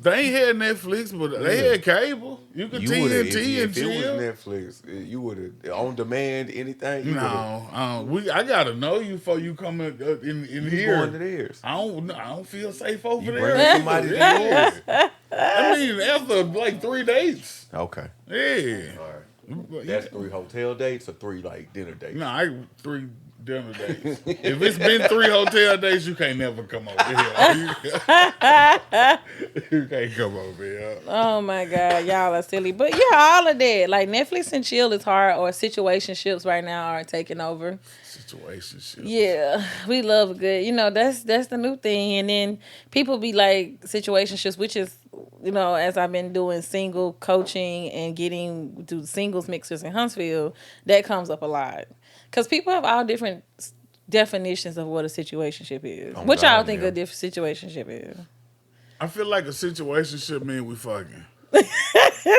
They ain't had Netflix, but they Yeah. had cable. You could You would've- if, TNT and if it was chill. Netflix, eh, you would have on demand anything. You would've- No, uh, we. I gotta know you before you come in uh, in, in you here. going to theirs. I don't. I don't feel safe over You there. bring somebody to yours. I mean, after like three dates. Okay. Yeah. All right. That's three hotel dates or three like dinner dates. No, I three dinner days. if it's been three hotel days, you can't never come over here. you can't come over here. Oh my god, y'all are silly. But yeah, all of that. Like Netflix and chill is hard or situationships right now are taking over. Situation shit. Yeah. We love a good. You know, that's that's the new thing. And then people be like situationships, which is you know, as I've been doing single coaching and getting do singles mixers in Huntsville, that comes up a lot. Cause people have all different s- definitions of what a situationship is. Oh, what y'all God, think yeah. a diff- situationship is? I feel like a situation shit mean we fucking.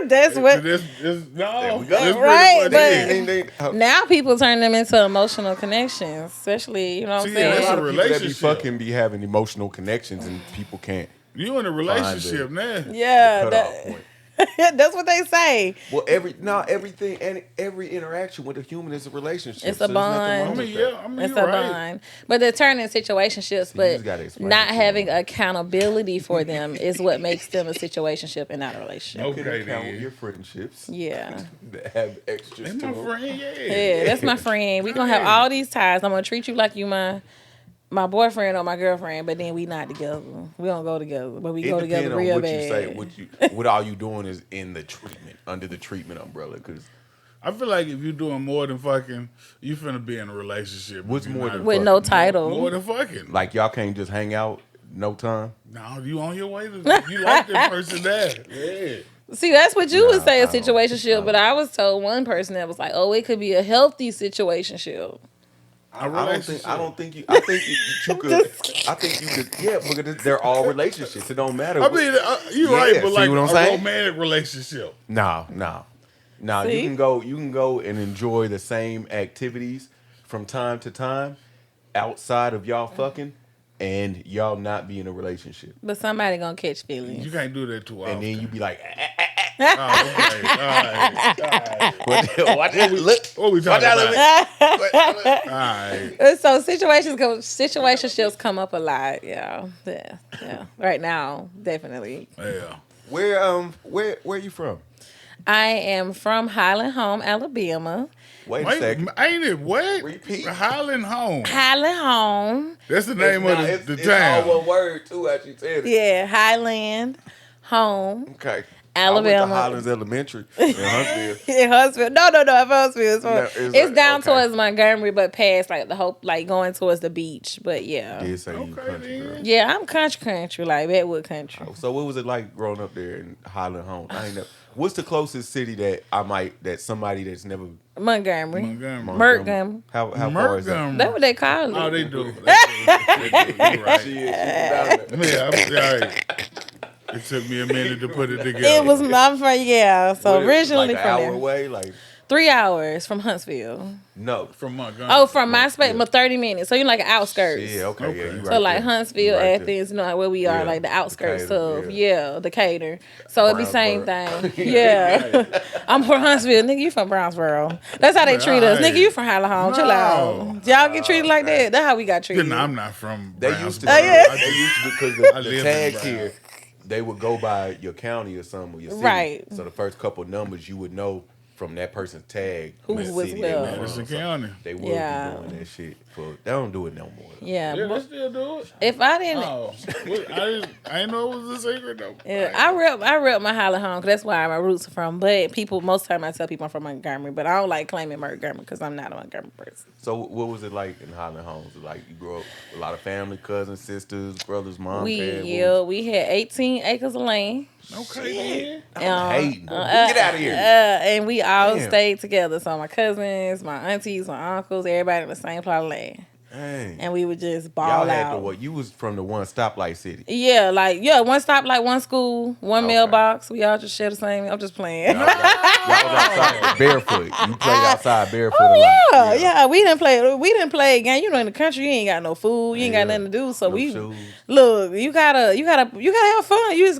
that's what This, this, no, There we This go. pretty Right, much but- it. Ding, ding, ding. Oh, Now people turn them into emotional connections, especially you know what I'm See, saying. that's lot a of people that be relationship. fucking be having emotional connections and people can't. you in a relationship now. yeah, cut off that, point. that's what they say. Well, every now everything and every interaction with a human is a relationship. It's so a there's nothing I wrong bond. mean, with that. yeah, I mean, It's you're a right. bond, but they're turning situationships, just gotta but explain not it to having them. accountability for them is what makes them a situationship and not a relationship. Nope. Okay, You can count then. your friendships Yeah, that have extras And to my them. friend, yeah. yeah, that's my friend. We gonna have all these ties. I'm gonna treat you like you my my boyfriend or my girlfriend, but then we not together. We don't go together, but we It go depends together on real what bad. you say. What you, what all you doing is in the treatment under the treatment umbrella. Because I feel like if you're doing more than fucking, you finna be in a relationship. What's You're more not- than With fuck. no title. More than fucking. like y'all can't just hang out no time. No, you on your way to you like that person there. Yeah. See, that's what you would Nah, say I a don't- situationship, but I was told one person that was like, "Oh, it could be a healthy situationship." A I don't relationship. think. I don't think you. I think you, you could. I think you could. Yeah, because they're all relationships. It don't matter. I mean, uh, you're Yeah, right, but see like what I'm a saying? romantic relationship. No, no, no. You See? can go. You can go and enjoy the same activities from time to time, outside of y'all fucking, and y'all not be in a relationship. But somebody gonna catch feelings. You can't do that too often. And then you be like, "Ah, Oh, okay. All right. All right. what the- what the- look, What we what talking the- about? what- All right. Uh, So situations go, situationships come up a lot. Yeah, yeah, yeah. Right now, definitely. Yeah. Where um, where where you from? I am from Highland Home, Alabama. Wait, a Wait, second. ain't it what? Repeat. Highland Home. Highland Home, That's the name of Nah, the, it's- the it's town. all one word too. As you said it. yeah, Highland Home, Okay. I went Alabama. to Highlands Elementary in Huntsville. In Huntsville. No, no, no. In Huntsville. It's, No, it's, it's like- down okay. towards Montgomery, but past like the hope, like going towards the beach. But yeah. Did say Okay, you country girl. then. Yeah, I'm country country, like Redwood country. So what was it like growing up there in Highland Home? I ain't never, what's the closest city that I might that somebody that's never Montgomery. Montgomery. Montgomery. How how far is that? Montgomery. That's what they call it. Oh, they do. They do. They do. You're right. She is, she from down there. Yeah, I'm sorry. It took me a minute to put it together. it was not from yeah. So What is it, originally like an from hour there. away, like Three hours from Huntsville. no. from Montgomery. Oh, from my space, but thirty minutes. So you're like outskirts. Yeah, okay, yeah, you Okay. right So, So like there. Huntsville, You right there. Athens, you know like where we are, Yeah, like the outskirts Decatur, of yeah. yeah. Decatur. So it'd be same Brownsboro. thing. Yeah, I'm from Huntsville, nigga. You from Brownsboro? That's how they treat us, Right. nigga. You from Highland Home? Chill out. Y'all get treated like that. That's how we got treated. Then I'm not from. They used to Brownsboro. Oh, yeah. I they just- used to because I the, live the in tags Brown. here they would go by your county or something or your city. Right. So the first couple numbers you would know from that person's tag Who what was city they were well. from. Madison So County. They would Yeah. be doing that shit for they don't do it no more. though. yeah. Yeah, they but still do it. If I didn't, Oh, What- I didn't. I didn't know it was a secret though. Yeah, I rep I rep my Highland home 'cause that's where my roots are from. But people most time I tell people I'm from Montgomery, but I don't like claiming Montgomery because I'm not a Montgomery person. So what was it like in Highland Homes? Like you grew up with a lot of family, cousins, sisters, brothers, mom, we dad. what yeah, was- we had 18 acres of land, Okay. then. I'm um, hating. uh, Oh, Get out of uh, here. and we all Damn. stayed together. So my cousins, my aunties, my uncles, everybody in the same plot of land, Dang. and we would just ball Y'all had out. to what? You was from the one stoplight city. Yeah, like yeah, one stop, like one school, one Okay. mailbox. We all just share the same. I'm just playing. Y'all was out- y'all was outside barefoot. You played outside barefoot. a lot. Uh, Oh yeah, yeah. We didn't play. We didn't play a game. You know, in the country, you ain't got no food. You ain't Yeah. got nothing to do. So No we shoes. look. You gotta. You gotta. You gotta have fun. You just